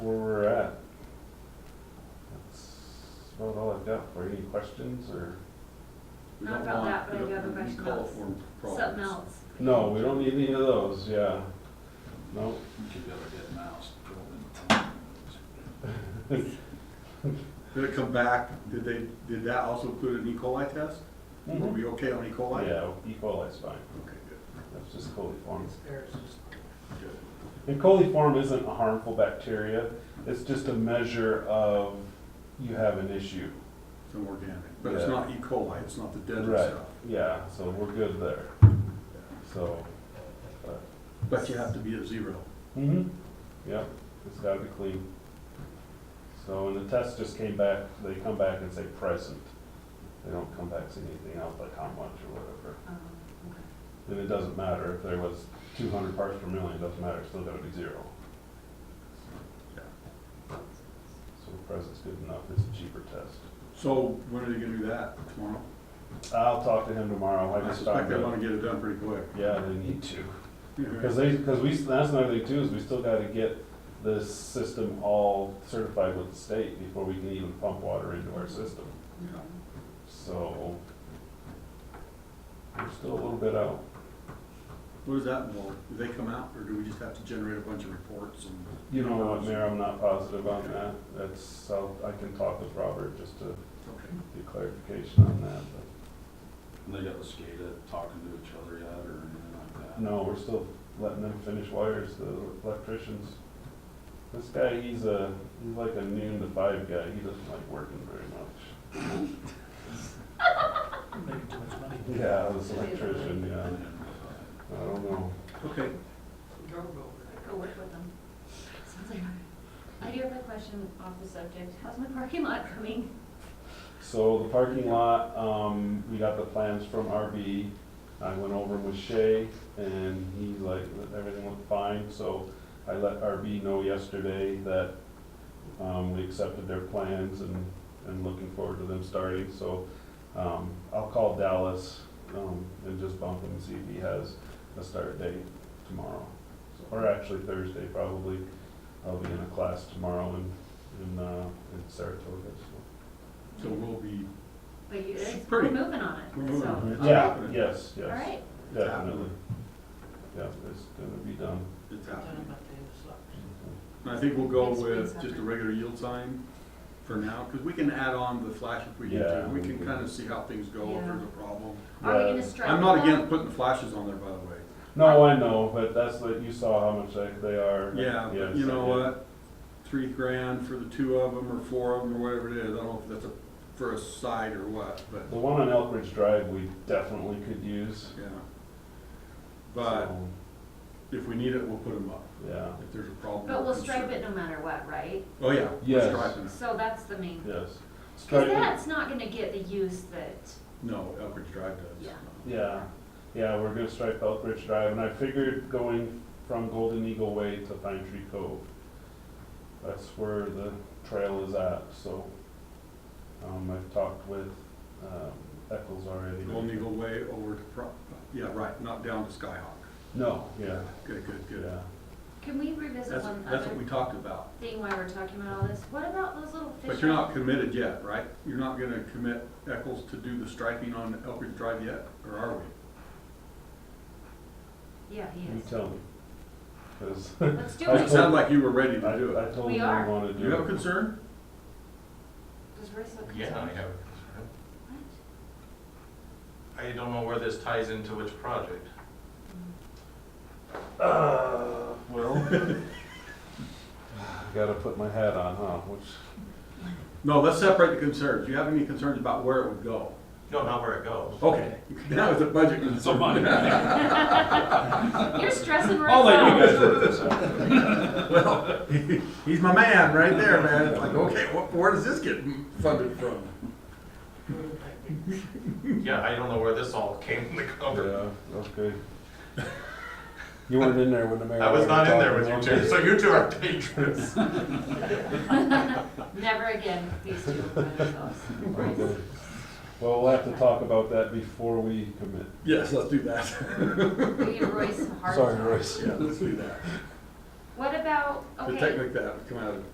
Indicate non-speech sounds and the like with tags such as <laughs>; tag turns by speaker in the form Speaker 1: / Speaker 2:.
Speaker 1: questions or?
Speaker 2: We
Speaker 3: Not
Speaker 2: don't
Speaker 3: about
Speaker 2: want-
Speaker 3: that,
Speaker 2: we
Speaker 3: but I do
Speaker 2: don't-
Speaker 3: have a
Speaker 2: we
Speaker 3: question
Speaker 2: call
Speaker 3: about
Speaker 2: for problems.
Speaker 3: Something else.
Speaker 1: No, we don't need any of those, yeah. No,
Speaker 2: We could have a dead mouse. throw it
Speaker 1: <laughs>
Speaker 4: Did it come back, did they, did that also include an E. coli test? Were
Speaker 1: Mhm.
Speaker 4: we okay on E. coli?
Speaker 1: yeah, E. coli's fine,
Speaker 4: Okay, good,
Speaker 1: that's just coliform.
Speaker 4: good.
Speaker 1: And coliform isn't a harmful bacteria, it's just a measure of you have an issue.
Speaker 4: It's an organic, but it's
Speaker 1: Yeah.
Speaker 4: not E. coli, it's not the deadly
Speaker 1: Right,
Speaker 4: stuff.
Speaker 1: yeah, so we're good there, so.
Speaker 4: But you have to be at zero.
Speaker 1: Mm-hmm. Yep, it's gotta be clean. So, and the test just came back, they come back and say present. They don't come back saying anything else, like how much or whatever.
Speaker 3: Um, okay.
Speaker 1: And it doesn't matter if there was two hundred parts per million, it doesn't matter, it's still gotta be zero.
Speaker 4: Yeah.
Speaker 1: So present's good enough, it's a cheaper test.
Speaker 4: So when are they gonna do that? Tomorrow?
Speaker 1: I'll talk to him tomorrow, I
Speaker 4: I
Speaker 1: just talked
Speaker 4: suspect they
Speaker 1: to,
Speaker 4: wanna get it done pretty quick.
Speaker 1: yeah, they need to.
Speaker 4: Yeah.
Speaker 1: Because they, because we, that's another thing too, is we still gotta get this system all certified with the state before we can even pump water into our system. So, we're still a little bit out.
Speaker 4: What does that involve? Do they come out or do we just have to generate a bunch of reports and?
Speaker 1: You know what, Mayor, I'm not positive on that. That's, I'll, I can talk with Robert just to
Speaker 4: Okay.
Speaker 1: get clarification on that, but
Speaker 2: And they got the SCADA talking to each other yet or anything like that?
Speaker 1: no, we're still letting them finish wires, the electricians. This guy, he's a, he's like a noon to five guy. He doesn't like working very much.
Speaker 5: Making too much money.
Speaker 1: Yeah, this electrician,
Speaker 2: And
Speaker 1: yeah.
Speaker 2: then, uh,
Speaker 1: I don't know.
Speaker 4: Okay,
Speaker 3: Go, go work with them. Sounds like, I do have a question off the subject. How's my parking lot coming?
Speaker 1: So the parking lot, um, we got the plans from RB. I went over with Shay and he's like, everything looked fine, so I let RB know yesterday that, um, we accepted their plans and, and looking forward to them starting, so, um, I'll call Dallas, um, and just bump him and see if he has a start date tomorrow. So- Or actually Thursday probably. I'll be in a class tomorrow in, in, uh, in Saratoga, so.
Speaker 4: so we'll be,
Speaker 3: But you, it's- we're
Speaker 4: Pretty-
Speaker 3: moving on it,
Speaker 4: we're moving
Speaker 3: so.
Speaker 4: on it.
Speaker 1: Yeah, yes,
Speaker 3: All
Speaker 1: yes,
Speaker 3: right,
Speaker 4: it's
Speaker 1: definitely.
Speaker 4: happening.
Speaker 1: Yeah, it's gonna be done.
Speaker 4: It's
Speaker 5: Don't know
Speaker 4: happening.
Speaker 5: about the other side.
Speaker 4: And I think we'll go
Speaker 3: Next
Speaker 4: with
Speaker 3: spring,
Speaker 4: just a
Speaker 3: summer.
Speaker 4: regular yield sign for now, because we can add on the flash if we need to.
Speaker 1: Yeah.
Speaker 4: We can kind of see how things go, if
Speaker 3: Yeah.
Speaker 4: there's a problem.
Speaker 3: are we
Speaker 1: Yeah.
Speaker 3: gonna strike?
Speaker 4: I'm not
Speaker 3: that?
Speaker 4: against putting the flashes on there, by the way.
Speaker 1: No, I know, but that's like, you saw how much like they are.
Speaker 4: Yeah,
Speaker 1: Yes,
Speaker 4: but you know
Speaker 1: I did.
Speaker 4: what? Three grand for the two of them, or four of them, or whatever it is, I don't know if that's a, for a side or what, but,
Speaker 1: The one on Elk Ridge Drive, we definitely could use.
Speaker 4: yeah. But
Speaker 1: so,
Speaker 4: if we need it, we'll put them up,
Speaker 1: Yeah,
Speaker 4: if there's a problem.
Speaker 3: But we'll
Speaker 4: or
Speaker 3: stripe
Speaker 4: concern.
Speaker 3: it no matter what, right?
Speaker 4: Oh, yeah. we're
Speaker 1: Yes.
Speaker 4: striping it.
Speaker 3: So that's the main,
Speaker 1: yes.
Speaker 3: cause
Speaker 1: Stripe it-
Speaker 3: that's not gonna get the use that,
Speaker 4: No, Elkridge Drive does.
Speaker 3: Yeah.
Speaker 1: Yeah, yeah, we're gonna stripe Elk Ridge Drive, and I figured going from Golden Eagle Way to Pine Tree Cove. That's where the trail is at, so, um, I've talked with, um, Eccles already.
Speaker 4: Golden Eagle Way over to Pro, yeah, right, not down to Skyhawk.
Speaker 1: No, yeah,
Speaker 4: Good, good, good.
Speaker 1: yeah.
Speaker 3: can we revisit
Speaker 4: That's,
Speaker 3: one
Speaker 4: that's what
Speaker 3: other
Speaker 4: we talked about,
Speaker 3: thing while we're talking about all this? What about those little fish?
Speaker 4: but you're not committed yet, right? You're not gonna commit Eccles to do the striping on Elkridge Drive yet, or are we?
Speaker 3: Yeah, he
Speaker 1: You
Speaker 3: is.
Speaker 1: tell me. 'Cause <laughs>
Speaker 3: Let's do
Speaker 1: I
Speaker 3: it,
Speaker 4: It
Speaker 1: told-
Speaker 4: sounded like you were
Speaker 1: I,
Speaker 4: ready
Speaker 1: I
Speaker 4: to do it.
Speaker 1: told
Speaker 3: We
Speaker 1: him I
Speaker 3: are.
Speaker 1: wanna do.
Speaker 4: Do you have a
Speaker 1: it.
Speaker 4: concern?
Speaker 3: does Marissa? come
Speaker 6: Yeah,
Speaker 3: on?
Speaker 6: I have a concern.
Speaker 3: What?
Speaker 6: I don't know where this ties into which project.
Speaker 1: Uh,
Speaker 2: <laughs>
Speaker 1: well. Gotta put my hat on, huh, which.
Speaker 4: No, let's separate the concerns. Do you have any concerns about where it would go?
Speaker 6: No, not where it goes.
Speaker 4: Okay, <laughs> that was a budget concern. <laughs>
Speaker 3: You're stressing Marissa
Speaker 2: I'll let you guys
Speaker 3: out.
Speaker 2: work this out.
Speaker 4: Well, he- he's my man right there, man. It's like, okay, wh- where does this get funded from?
Speaker 6: Yeah, I don't know where this all came to cover.
Speaker 1: Yeah, okay. <laughs> You weren't in there when the mayor.
Speaker 6: I was not in there with you
Speaker 1: was
Speaker 6: two, so you two are dangerous.
Speaker 3: Never again, these two
Speaker 1: <laughs>
Speaker 3: by themselves.
Speaker 1: Okay. Well, we'll have to talk about that before we commit.
Speaker 4: Yes, let's do that. <laughs>
Speaker 3: We give Royce a hard
Speaker 1: Sorry,
Speaker 3: time.
Speaker 1: Royce.
Speaker 4: Yeah, let's do that.
Speaker 3: What about,
Speaker 4: The
Speaker 3: okay,
Speaker 4: technique that would come out of